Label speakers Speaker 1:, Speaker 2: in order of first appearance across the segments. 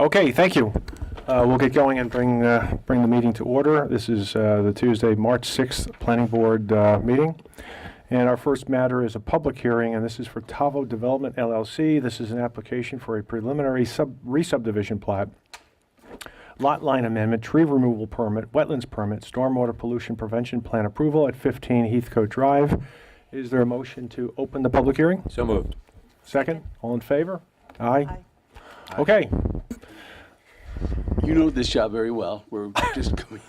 Speaker 1: Okay, thank you. Uh, We'll get going and bring, uh, bring the meeting to order. This is uh, the Tuesday, March 6th Planning Board uh, meeting. And our first matter is a public hearing, and this is for Tavo Development LLC. This is an application for a preliminary sub, re-subdivision plat, lot line amendment, tree removal permit, wetlands permit, stormwater pollution prevention plan approval at 15 Heathcote Drive. Is there a motion to open the public hearing?
Speaker 2: So moved.
Speaker 1: Second? All in favor? Aye? Okay.
Speaker 3: You know this job very well. We're just coming,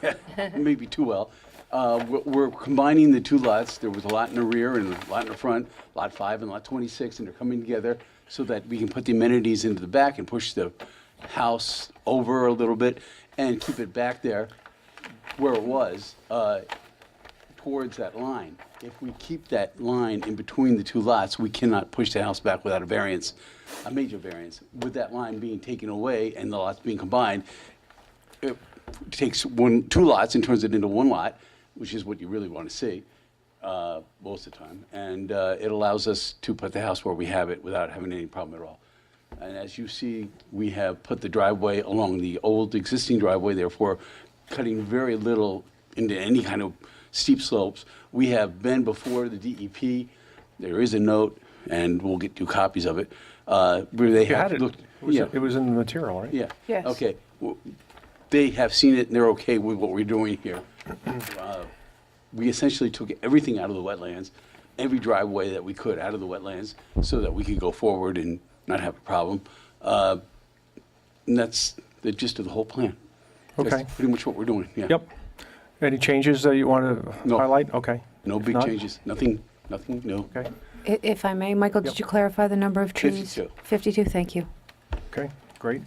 Speaker 3: maybe too well. Uh, we're- We're combining the two lots. There was a lot in the rear and a lot in the front, Lot 5 and Lot 26, and they're coming together so that we can put the amenities into the back and push the house over a little bit and keep it back there where it was uh, towards that line. If we keep that line in between the two lots, we cannot push the house back without a variance, a major variance. With that line being taken away and the lots being combined, it takes one, two lots and turns it into one lot, which is what you really want to see uh, most of the time. And uh, it allows us to put the house where we have it without having any problem at all. And as you see, we have put the driveway along the old existing driveway, therefore cutting very little into any kind of steep slopes. We have been before the DEP. There is a note, and we'll get you copies of it, uh, where they
Speaker 1: You had
Speaker 3: have
Speaker 1: it.
Speaker 3: looked.
Speaker 1: It was-
Speaker 3: yeah.
Speaker 1: It was in the material, right?
Speaker 3: Yeah.
Speaker 4: Yes.
Speaker 3: Okay. W- They have seen it, and they're okay with what we're doing here. Uh, We essentially took everything out of the wetlands, every driveway that we could out of the wetlands, so that we could go forward and not have a problem. Uh, And that's the gist of the whole plan. That's
Speaker 1: Okay.
Speaker 3: Pretty much what we're doing, yeah.
Speaker 1: Yep. Any changes that you want to
Speaker 3: No.
Speaker 1: highlight? Okay.
Speaker 3: No
Speaker 1: If
Speaker 3: big
Speaker 1: not-
Speaker 3: changes, nothing, nothing, no.
Speaker 1: Okay,
Speaker 4: I- If I may, Michael,
Speaker 1: Yep.
Speaker 4: did you clarify the number of trees?
Speaker 3: 52.
Speaker 4: 52, thank you.
Speaker 1: okay, great.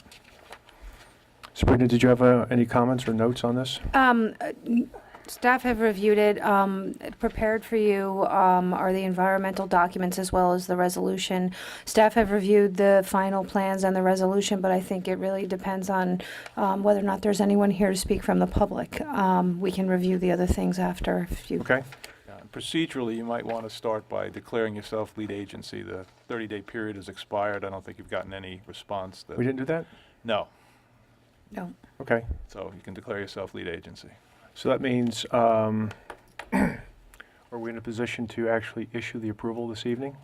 Speaker 1: Sabrina, did you have uh, any comments or notes on this?
Speaker 4: Um, uh, n- Staff have reviewed it, um, prepared for you um, are the environmental documents as well as the resolution. Staff have reviewed the final plans and the resolution, but I think it really depends on um, whether or not there's anyone here to speak from the public. Um, We can review the other things after if you
Speaker 1: Okay,
Speaker 5: Yeah, and Procedurally, you might want to start by declaring yourself lead agency. The 30-day period has expired. I don't think you've gotten any response. that-
Speaker 1: we didn't do that?
Speaker 5: No.
Speaker 4: No.
Speaker 1: Okay,
Speaker 5: So you can declare yourself lead agency.
Speaker 1: so that means, um, are we in a position to actually issue the approval this evening?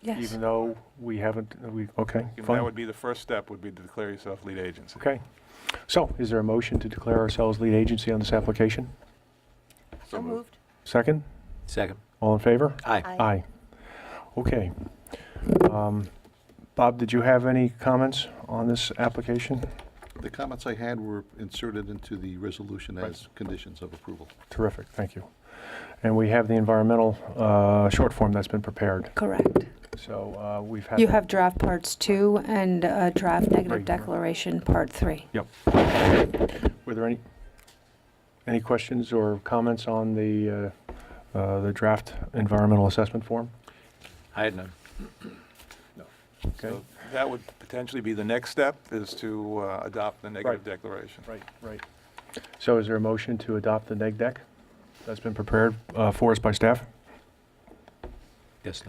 Speaker 4: Yes.
Speaker 1: Even though we haven't, we, okay,
Speaker 5: And That
Speaker 1: fine.
Speaker 5: would be the first step, would be to declare yourself lead agency.
Speaker 1: Okay. So is there a motion to declare ourselves lead agency on this application?
Speaker 6: So moved.
Speaker 1: Second?
Speaker 2: Second.
Speaker 1: All in favor?
Speaker 2: Aye.
Speaker 1: Aye. Okay. Um, Bob, did you have any comments on this application?
Speaker 7: The comments I had were inserted into the resolution as conditions of approval.
Speaker 1: Terrific, thank you. And we have the environmental uh, short form that's been prepared,
Speaker 4: Correct.
Speaker 1: so uh, we've had.
Speaker 4: You
Speaker 1: that.
Speaker 4: have draft parts two and uh, draft
Speaker 1: Right.
Speaker 4: negative declaration part three.
Speaker 1: Were there any, any questions or comments on the, uh, uh, the draft environmental assessment form?
Speaker 2: I had none.
Speaker 1: Okay.
Speaker 5: So That would potentially be the next step, is to uh, adopt the
Speaker 1: Right.
Speaker 5: negative declaration.
Speaker 1: Right, right. So is there a motion to adopt the neg deck that's been prepared uh, for us by staff?
Speaker 2: Guess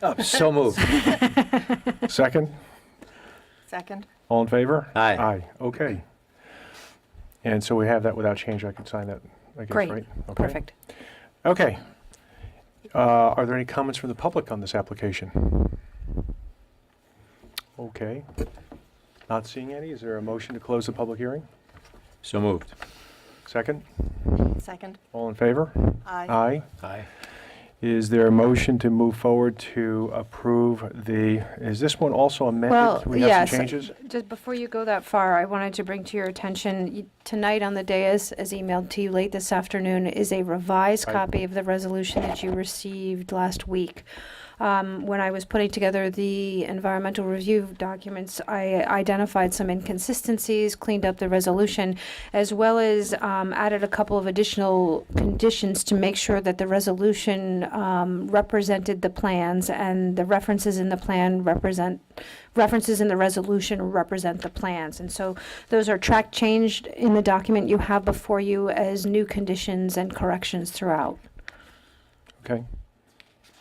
Speaker 2: not. So moved.
Speaker 1: Second?
Speaker 6: Second?
Speaker 1: All in favor?
Speaker 2: Aye.
Speaker 1: Aye, okay. And so we have that without change, I can sign that, I guess, right?
Speaker 4: Great,
Speaker 1: Okay.
Speaker 4: perfect.
Speaker 1: Okay. Uh, Are there any comments from the public on this application? Okay. Not seeing any, is there a motion to close the public hearing?
Speaker 2: So moved.
Speaker 1: Second,
Speaker 6: Second?
Speaker 1: all in favor?
Speaker 6: Aye.
Speaker 1: Aye.
Speaker 2: Aye.
Speaker 1: Is there a motion to move forward to approve the, is this one also amended?
Speaker 4: Well,
Speaker 1: We have
Speaker 4: yes.
Speaker 1: some changes?
Speaker 4: Just before you go that far, I wanted to bring to your attention, y- tonight on the dais, as emailed to you late this afternoon, is a revised
Speaker 1: Right.
Speaker 4: copy of the resolution that you received last week. Um, When I was putting together the environmental review documents, I identified some inconsistencies, cleaned up the resolution, as well as um, added a couple of additional conditions to make sure that the resolution um, represented the plans and the references in the plan represent, references in the resolution represent the plans. And so those are track changed in the document you have before you as new conditions and corrections throughout.
Speaker 1: Okay.